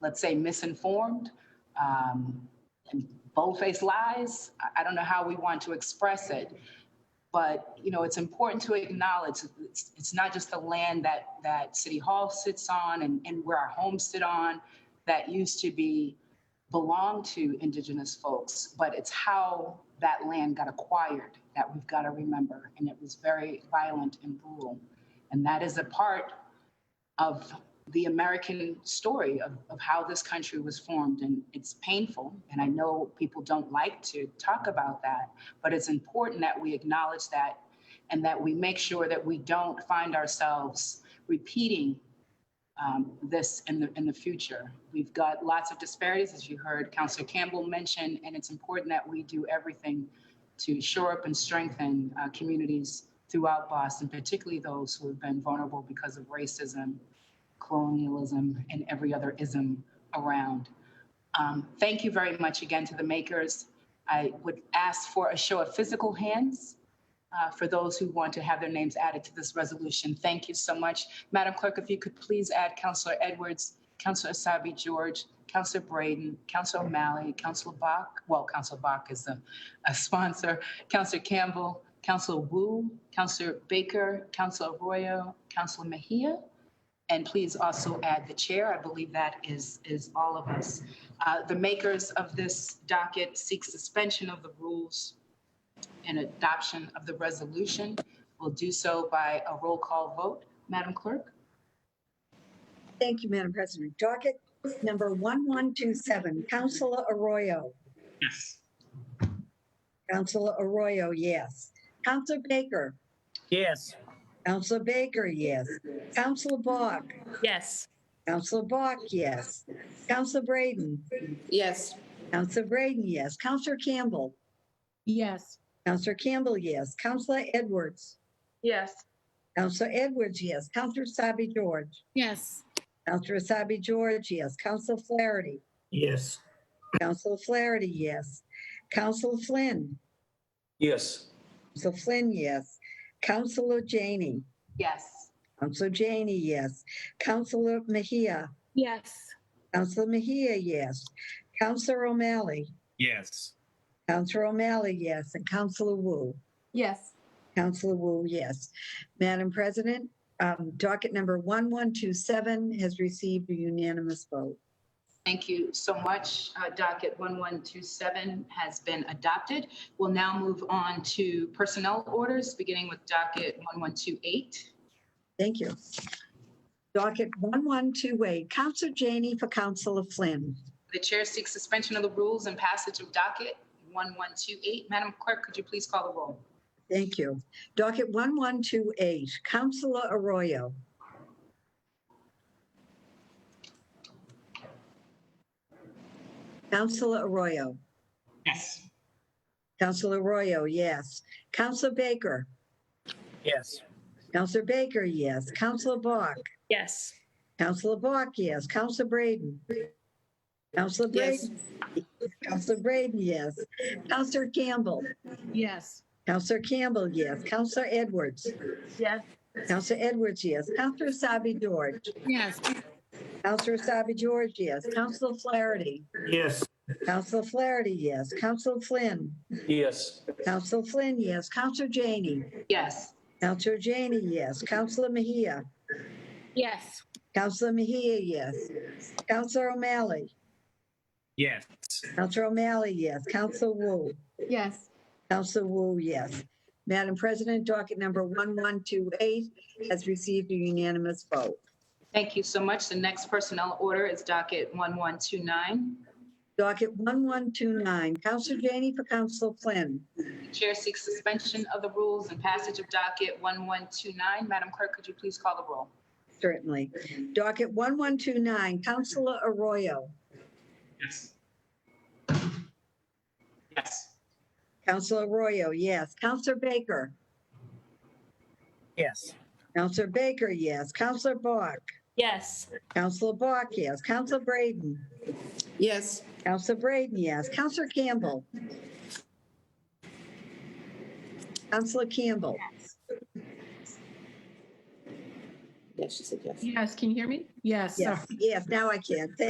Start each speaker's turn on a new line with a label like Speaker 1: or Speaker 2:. Speaker 1: let's say, misinformed, um, and bold-faced lies. I, I don't know how we want to express it. But, you know, it's important to acknowledge, it's, it's not just the land that, that City Hall sits on and, and where our homes sit on that used to be, belong to Indigenous folks, but it's how that land got acquired that we've got to remember. And it was very violent and brutal. And that is a part of the American story of, of how this country was formed. And it's painful. And I know people don't like to talk about that, but it's important that we acknowledge that and that we make sure that we don't find ourselves repeating um, this in the, in the future. We've got lots of disparities, as you heard Councilor Campbell mention, and it's important that we do everything to shore up and strengthen uh, communities throughout Boston, particularly those who have been vulnerable because of racism, colonialism, and every other ism around. Um, thank you very much again to the makers. I would ask for a show of physical hands uh, for those who want to have their names added to this resolution. Thank you so much. Madam Clerk, if you could please add Councillor Edwards, Councillor Asabi George, Councillor Braden, Councillor O'Malley, Councillor Bach, well, Councillor Bach is a, a sponsor, Councillor Campbell, Councillor Wu, Councillor Baker, Councillor Arroyo, Councillor Mejia, and please also add the chair. I believe that is, is all of us. Uh, The makers of this docket seek suspension of the rules and adoption of the resolution. We'll do so by a roll call vote. Madam Clerk?
Speaker 2: Thank you, Madam President. Docket number 1127, Councilor Arroyo.
Speaker 3: Yes.
Speaker 2: Councilor Arroyo, yes. Councilor Baker.
Speaker 3: Yes.
Speaker 2: Councilor Baker, yes. Councilor Bach.
Speaker 4: Yes.
Speaker 2: Councilor Bach, yes. Councilor Braden.
Speaker 4: Yes.
Speaker 2: Councilor Braden, yes. Councilor Campbell.
Speaker 4: Yes.
Speaker 2: Councilor Campbell, yes. Councilor Edwards.
Speaker 4: Yes.
Speaker 2: Councilor Edwards, yes. Councilor Sabi George.
Speaker 4: Yes.
Speaker 2: Councilor Sabi George, yes. Councilor Flaherty.
Speaker 3: Yes.
Speaker 2: Councilor Flaherty, yes. Councilor Flynn.
Speaker 3: Yes.
Speaker 2: Council Flynn, yes. Councilor Janey.
Speaker 1: Yes.
Speaker 2: Councilor Janey, yes. Councilor Mejia.
Speaker 4: Yes.
Speaker 2: Councilor Mejia, yes. Councilor O'Malley.
Speaker 3: Yes.
Speaker 2: Councilor O'Malley, yes. And Councilor Wu.
Speaker 4: Yes.
Speaker 2: Councilor Wu, yes. Madam President, um, docket number 1127 has received a unanimous vote.
Speaker 1: Thank you so much. Uh, Docket 1127 has been adopted. We'll now move on to personnel orders, beginning with docket 1128.
Speaker 2: Thank you. Docket 1128, Councilor Janey for Councilor Flynn.
Speaker 1: The chair seeks suspension of the rules and passage of docket 1128. Madam Clerk, could you please call the roll?
Speaker 2: Thank you. Docket 1128, Councilor Arroyo. Councilor Arroyo.
Speaker 3: Yes.
Speaker 2: Councilor Arroyo, yes. Councilor Baker.
Speaker 3: Yes.
Speaker 2: Councilor Baker, yes. Councilor Bach.
Speaker 4: Yes.
Speaker 2: Councilor Bach, yes. Councilor Braden. Councilor
Speaker 4: Yes.
Speaker 2: Braden. Councilor Braden, yes. Councilor Campbell.
Speaker 4: Yes.
Speaker 2: Councilor Campbell, yes. Councilor Edwards.
Speaker 4: Yes.
Speaker 2: Counselor Edwards, yes. Counselor Sabi George.
Speaker 4: Yes.
Speaker 2: Counselor Sabi George, yes. Counselor Flaherty.
Speaker 3: Yes.
Speaker 2: Counselor Flaherty, yes. Counselor Flynn.
Speaker 3: Yes.
Speaker 2: Counselor Flynn, yes. Counselor Janey.
Speaker 1: Yes.
Speaker 2: Counselor Janey, yes. Counselor Mejia.
Speaker 4: Yes.
Speaker 2: Counselor Mejia, yes. Counselor O'Malley.
Speaker 3: Yes.
Speaker 2: Counselor O'Malley, yes. Counselor Wu.
Speaker 4: Yes.
Speaker 2: Counselor Wu, yes. Madam President, docket number 1128 has received a unanimous vote.
Speaker 1: Thank you so much. The next personnel order is docket 1129.
Speaker 2: Docket 1129, Counselor Janey for Counselor Flynn.
Speaker 1: Chair seeks suspension of the rules and passage of docket 1129. Madam Clerk, could you please call the roll?
Speaker 2: Certainly. Docket 1129, Counselor Arroyo.
Speaker 3: Yes. Yes.
Speaker 2: Counselor Arroyo, yes. Counselor Baker.
Speaker 3: Yes.
Speaker 2: Counselor Baker, yes. Counselor Bach.
Speaker 4: Yes.
Speaker 2: Counselor Bach, yes. Counselor Braden.
Speaker 4: Yes.
Speaker 2: Counselor Braden, yes. Counselor Campbell. Counselor Campbell.
Speaker 4: Yes. Can you hear me? Yes.
Speaker 2: Yes, yes, now I can. Thank